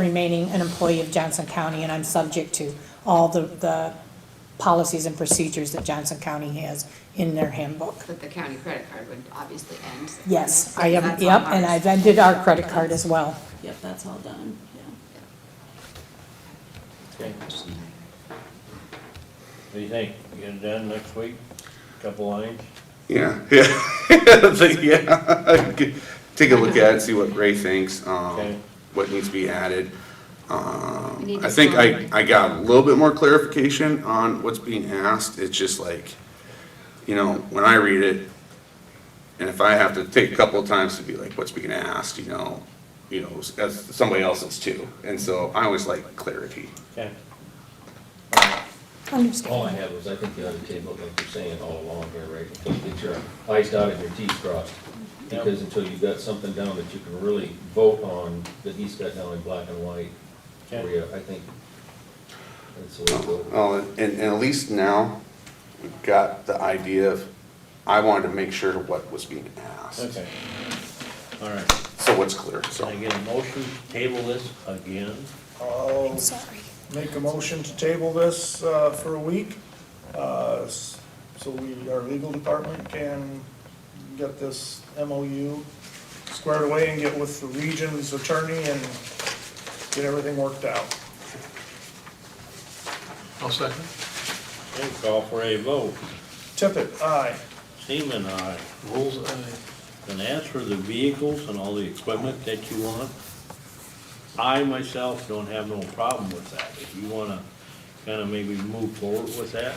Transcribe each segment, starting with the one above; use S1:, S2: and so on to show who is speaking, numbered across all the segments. S1: remaining an employee of Johnson County, and I'm subject to all the, the policies and procedures that Johnson County has in their handbook.
S2: But the county credit card would obviously end.
S1: Yes,
S2: So
S1: I am,
S2: that's
S1: yep,
S2: on
S1: and
S2: ours.
S1: I've ended our credit card as well.
S3: Yep, that's all done, yeah.
S4: Okay, What do you think? Get it done next week? Couple lines?
S5: Yeah, yeah, I think, yeah. Take a look at it, see what Ray thinks,
S4: Okay.
S5: um, what needs to be added.
S2: We
S5: Um,
S2: need to
S5: I think I,
S2: celebrate.
S5: I got a little bit more clarification on what's being asked, it's just like, you know, when I read it, and if I have to take a couple of times to be like, what's being asked, you know, you know, as somebody else's too, and so I always like clarity.
S4: Okay.
S6: All I
S1: Understand.
S6: have was, I think, the other table, like you're saying all along here, right, to get your eyes dotted and your T's crossed.
S4: Yep.
S6: Because until you've got something down that you can really vote on, that he's got down in black and white,
S4: Okay.
S6: where you, I think, that's the way to go.
S5: Well, and, and at least now, we've got the idea of, I wanted to make sure what was being asked.
S4: Okay. All right.
S5: So what's clear,
S4: Can
S5: so.
S4: I get a motion to table this again?
S7: I'll
S1: Sorry.
S7: make a motion to table this uh, for a week, uh, s- so we, our legal department can get this MOU squared away and get with the region's attorney and get everything worked out.
S8: I'll second.
S4: Okay, call for a vote.
S7: Tippit, aye.
S4: Seaman, aye.
S8: Rules, aye.
S4: And as for the vehicles and all the equipment that you want, I myself don't have no problem with that. If you wanna kinda maybe move forward with that,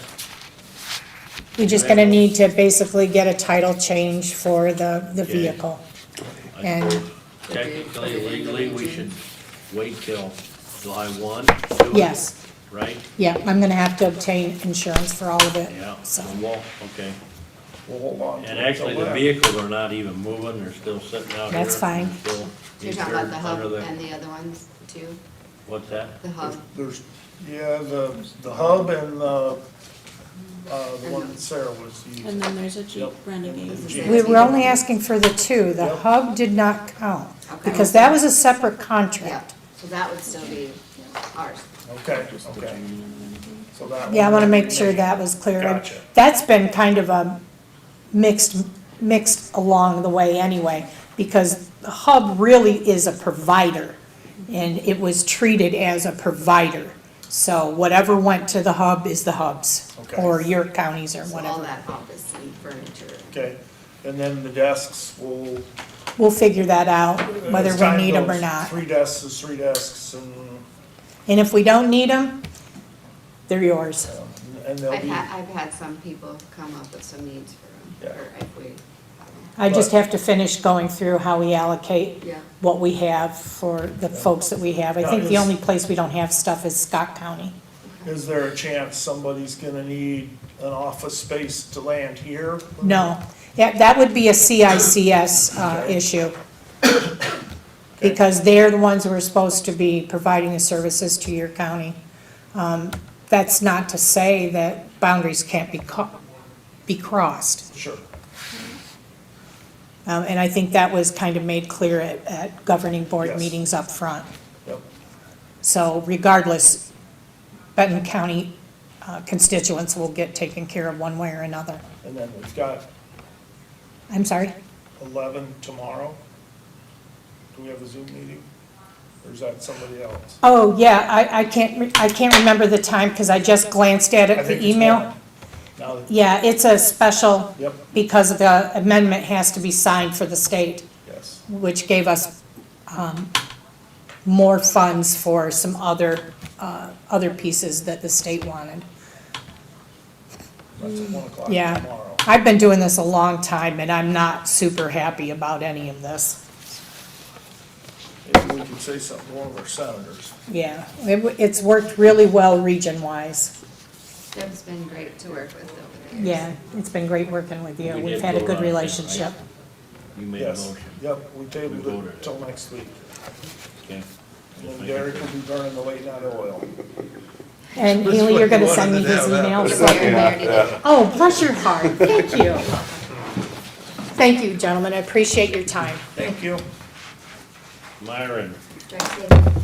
S1: We're just gonna need to basically get a title change for the, the
S4: Okay.
S1: vehicle.
S4: I
S1: And-
S4: suppose technically, legally, we should wait till July one. to do it,
S1: Yes,
S4: Right?
S1: yeah, I'm gonna have to obtain insurance for all of it,
S4: Yeah,
S1: so.
S4: well, okay.
S7: We'll hold on. to
S4: And
S7: it
S4: actually,
S7: till
S4: the
S7: then.
S4: vehicles are not even moving, they're still sitting out here.
S1: That's fine.
S4: and still-
S2: You're talking about the
S4: under
S2: hub
S4: the-
S2: and the other ones too,
S4: What's that?
S2: the hub.
S7: There's, yeah, the, the hub and the, uh, the one that Sarah was
S3: And
S7: using.
S3: then there's a Jeep
S7: Yep.
S3: Renegade.
S1: We were only asking for the two, the
S7: Yep.
S1: hub did not count,
S2: Okay.
S1: because that was a separate
S2: Yeah,
S1: contract.
S2: so that would still be ours.
S7: Okay, okay. So that
S1: Yeah, I
S7: one-
S1: wanna make sure that was clear.
S7: Gotcha.
S1: That's been kind of a mixed, mixed along the way anyway, because the hub really is a provider, and it was treated as a provider. So whatever went to the hub is the hubs,
S7: Okay.
S1: or your counties or
S2: So all
S1: whatever.
S2: that office and furniture.
S7: Okay, and then the desks will
S1: We'll figure that out, whether
S7: As time
S1: we need them or
S7: goes,
S1: not.
S7: Three desks is three desks and,
S1: And if we don't need them, they're yours.
S7: um, and they'll
S2: I've
S7: be,
S2: had, I've had some people come up with some needs for,
S7: Yeah.
S2: or if we,
S1: I just have to finish going through how we allocate
S2: Yeah.
S1: what we have for the folks that we have. I think the only place we don't have stuff is Scott County.
S7: is there a chance somebody's gonna need an office space to land here?
S1: No, yeah, that would be a CICS uh, issue. Because they're the ones who are supposed to be providing the services to your county. Um, That's not to say that boundaries can't be co- be crossed.
S7: Sure,
S1: Um, And I think that was kind of made clear at, at governing board
S7: Yes.
S1: meetings up front.
S7: yep,
S1: So regardless, Benton County uh, constituents will get taken care of one way or another.
S7: and then we've got
S1: I'm sorry?
S7: eleven tomorrow. Do we have a Zoom meeting? Or is that somebody else?
S1: Oh, yeah, I, I can't, re- I can't remember the time because I just glanced at
S7: I
S1: it,
S7: think
S1: the
S7: it's
S1: email.
S7: one. Now, that-
S1: Yeah, it's a special
S7: Yep.
S1: because the amendment has to be signed for the state,
S7: yes,
S1: which gave us um, more funds for some other, uh, other pieces that the state wanted.
S7: that's at one o'clock
S1: Yeah.
S7: tomorrow.
S1: I've been doing this a long time, and I'm not super happy about any of this.
S7: Maybe we could say something to one of our senators.
S1: Yeah, it w- it's worked really well region-wise.
S2: Deb's been great to work with over the years.
S1: Yeah, it's been great working with you.
S4: We
S1: We've
S4: did
S1: had a
S4: vote
S1: good
S4: on it, right?
S1: relationship.
S4: You made a
S7: Yes,
S4: motion,
S7: yep, we tabled
S4: We voted it.
S7: it till next week.
S4: okay?
S7: And then Derek will be burning the late night oil.
S1: And
S8: This is
S1: Haley,
S8: what
S1: you're
S8: you
S1: gonna
S8: wanted
S1: send me
S8: to
S1: his
S8: have, that
S1: email.
S2: We
S5: was-
S1: so I
S2: already- we
S1: can-
S5: Yeah,
S2: already
S7: uh,
S2: did.
S1: Oh, bless your heart. Thank you. Thank you, gentlemen. I appreciate your time.
S7: Thank you.
S4: Myron,
S2: Did I say-